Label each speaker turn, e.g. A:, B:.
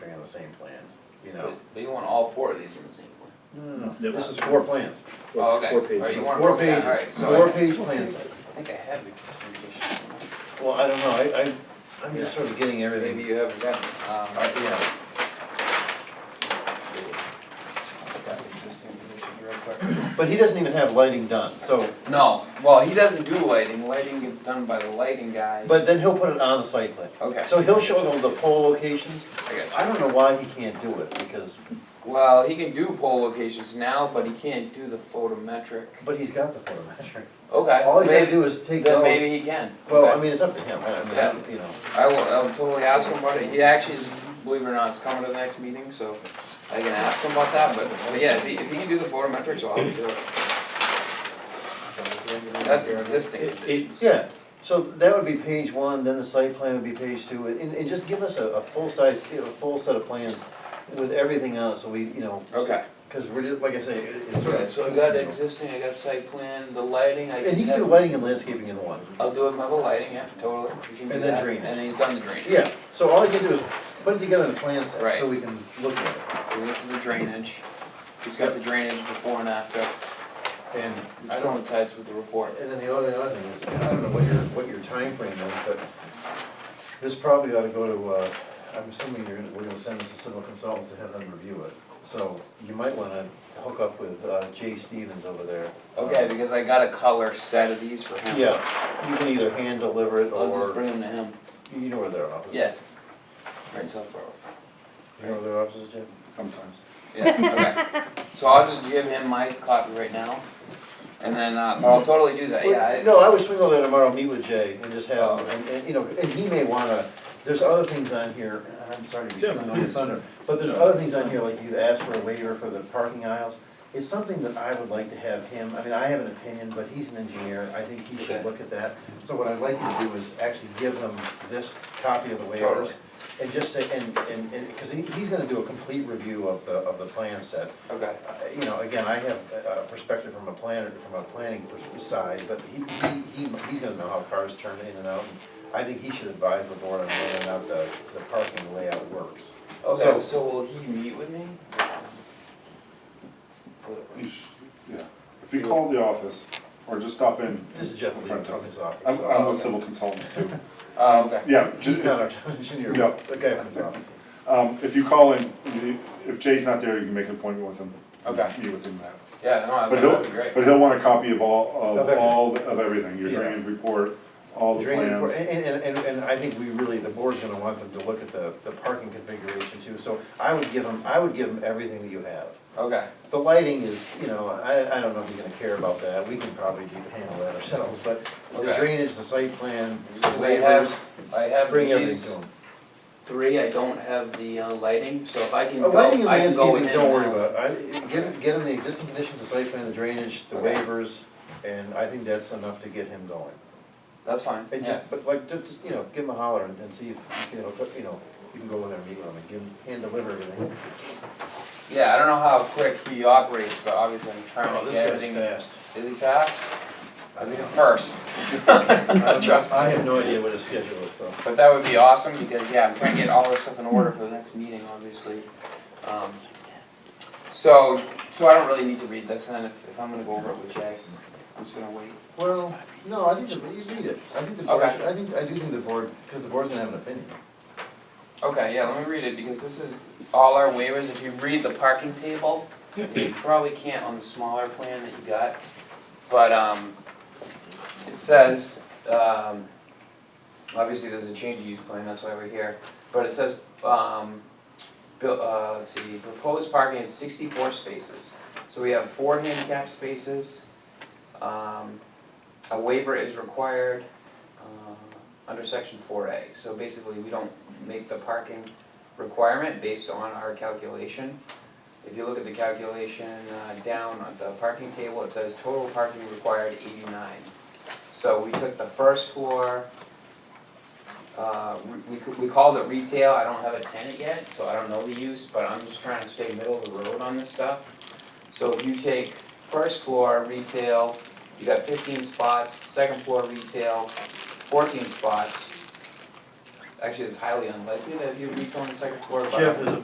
A: the same plan, you know?
B: But but you want all four of these in the same plan?
A: No, no, no,
C: Yep.
A: this is four plans,
B: Oh, okay.
D: Four
B: All right, you
D: pages.
B: want
A: four
B: them- yeah, all
A: pages,
B: right, so I-
A: four page plans.
B: I think I have existing conditions.
A: Well, I don't know, I, I, I'm just sort of getting everything.
B: Maybe you haven't Um, got them.
A: Uh, Yeah, but he doesn't even have lighting done, so,
B: No, well, he doesn't do lighting, lighting gets done by the lighting guy.
A: but then he'll put it on the site plan.
B: Okay.
A: So he'll show them the pole locations,
B: I got you.
A: I don't know why he can't do it, because,
B: Well, he can do pole locations now, but he can't do the photometric.
A: but he's got the photometrics.
B: Okay.
A: All he gotta
B: maybe-
A: do is take
B: Then
A: those,
B: maybe he can.
A: well,
B: Okay.
A: I mean, it's up to him, I I mean,
B: Yeah.
A: you know.
B: I will, I'll totally ask him about it, he actually, is- believe it or not, is coming to the next meeting, so I can ask him about that, but, but yeah, if he, if he can do the photometrics, I'll have him do it. That's existing
C: It- it-
B: conditions.
A: Yeah, so that would be page one, then the site plan would be page two, and, and just give us a, a full size, you know, a full set of plans with everything on it, so we, you know.
B: Okay.
A: Cause we're just, like I say, it- it's sort
B: Okay,
A: of.
B: so I got existing, I got site plan, the lighting, I.
A: And he can do
B: have-
A: lighting and landscaping in one.
B: I'll do it by the lighting, yeah, totally, he can do
A: And then
B: that,
A: drainage.
B: and he's done the drainage.
A: Yeah, so all he can do is put it together in a plan set,
B: Right.
A: so we can look at it.
B: Is This is the drainage, he's got the drainage before and after,
A: And I
B: which
A: don't,
B: coincides with the report.
A: and then the other, other thing is, I don't know what your, what your timeframe is, but this probably ought to go to, uh, I'm assuming you're gonna, we're gonna send this to civil consultants to have them review it. So you might wanna hook up with, uh, Jay Stevens over there.
B: Okay, because I got a color set of these for him.
A: Yeah, you can either hand deliver it
B: I'll just
A: or,
B: bring them to him,
A: you know where their office is?
B: yeah. Right, South Borough.
A: You know where their office is, Jim?
D: Sometimes.
B: Yeah, okay. So I'll just give him my copy right now, and then, uh, but I'll totally do that, yeah. I-
A: No, I would swing over there tomorrow, meet with Jay and just have,
B: Oh.
A: and, and, you know, and he may wanna, there's other things on here, and I'm sorry to be
C: Yeah,
A: stealing all your
C: please.
A: thunder, but there's other things on here, like you asked for a waiver for the parking aisles. It's something that I would like to have him, I mean, I have an opinion, but he's an engineer, I think he should
B: Okay.
A: look at that. So what I'd like you to do is actually give him this copy of the
B: Totally.
A: waivers. And just say, and, and, and, cause he, he's gonna do a complete review of the, of the plan set.
B: Okay,
A: Uh, you know, again, I have a a perspective from a planner, from a planning pers- side, but he, he, he- he's gonna know how cars turn in and out. I think he should advise the board on whether or not the, the parking layout works.
B: okay, so will he meet with me?
D: You sh- Yeah, if you call the office, or just stop in.
A: This is Jeff Lee from his office.
D: I'm,
A: so-
D: I'm a civil consultant too.
B: Uh, okay,
D: Yeah,
A: He's
D: just,
A: not our town engineer,
D: Yeah.
A: but the guy from his office. is.
D: um, if you call in, you- if Jay's not there, you can make an appointment with him.
B: Okay.
D: Meet with him then.
B: yeah, no, I-
D: But
B: that'd be
D: he'll,
B: great.
D: but he'll want a copy of all,
A: Of
D: of
A: everything.
D: all, the- of everything, your
A: Yeah.
D: drainage report, all the
A: Drainage report,
D: plans.
A: and, and, and, and I think we really, the board's gonna want them to look at the, the parking configuration too, so I would give him, I would give him everything that you have.
B: Okay,
A: The lighting is, you know, I, I don't know if you're gonna care about that, we can probably do- handle that ourselves, but the
B: Okay.
A: drainage, the site plan, the
B: So they have-
A: waivers,
B: I have
A: bring everything to
B: these
A: them.
B: three, I don't have the uh, lighting, so if I can
A: Uh,
B: go,
A: Lighting and
B: I can go with
A: landscaping,
B: him
A: don't worry
B: now.
A: about, I, get, get him the existing conditions, the site plan, the drainage, the
B: Okay.
A: waivers, and I think that's enough to get him going.
B: That's fine,
A: And
B: yeah,
A: just, but like, just, just, you know, give him a holler and, and see if, you know, put- you know, you can go in there and meet with him and give him, hand deliver everything.
B: yeah, I don't know how quick he operates, but obviously I'm trying
A: Oh,
B: to
A: this
B: get
A: guy's
B: everything.
A: fast.
B: Is he fast? I think first,
A: I don't know-
B: Trust me.
A: I have no idea what his schedule is, so.
B: but that would be awesome, because, yeah, I'm trying to get all this stuff in order for the next meeting, obviously. Um, So, so I don't really need to read this, then, if, if I'm gonna go over it with Jay, I'm just gonna wait.
A: Well, no, I think the, you need it, I think the board,
B: Okay.
A: should- I think, I do think the board, because the board's gonna have an opinion.
B: Okay, yeah, let me read it, because this is all our waivers, if you read the parking table, you probably can't on the smaller plan that you got, but, um, it says, um, obviously there's a change of use plan, that's why we're here, but it says, um, buil- uh, let's see, proposed parking is sixty-four spaces, so we have four handicap spaces, um, a waiver is required, uh, under section four A, so basically, we don't make the parking requirement based on our calculation. If you look at the calculation uh, down at the parking table, it says total parking required eighty-nine. So we took the first floor, uh, we- we, c- we called it retail, I don't have a tenant yet, so I don't know the use, but I'm just trying to stay middle of the road on this stuff. So if you take first floor retail, you got fifteen spots, second floor retail, fourteen spots. Actually, it's highly unlikely that you would reach on the second floor, but.
A: Jeff, there's a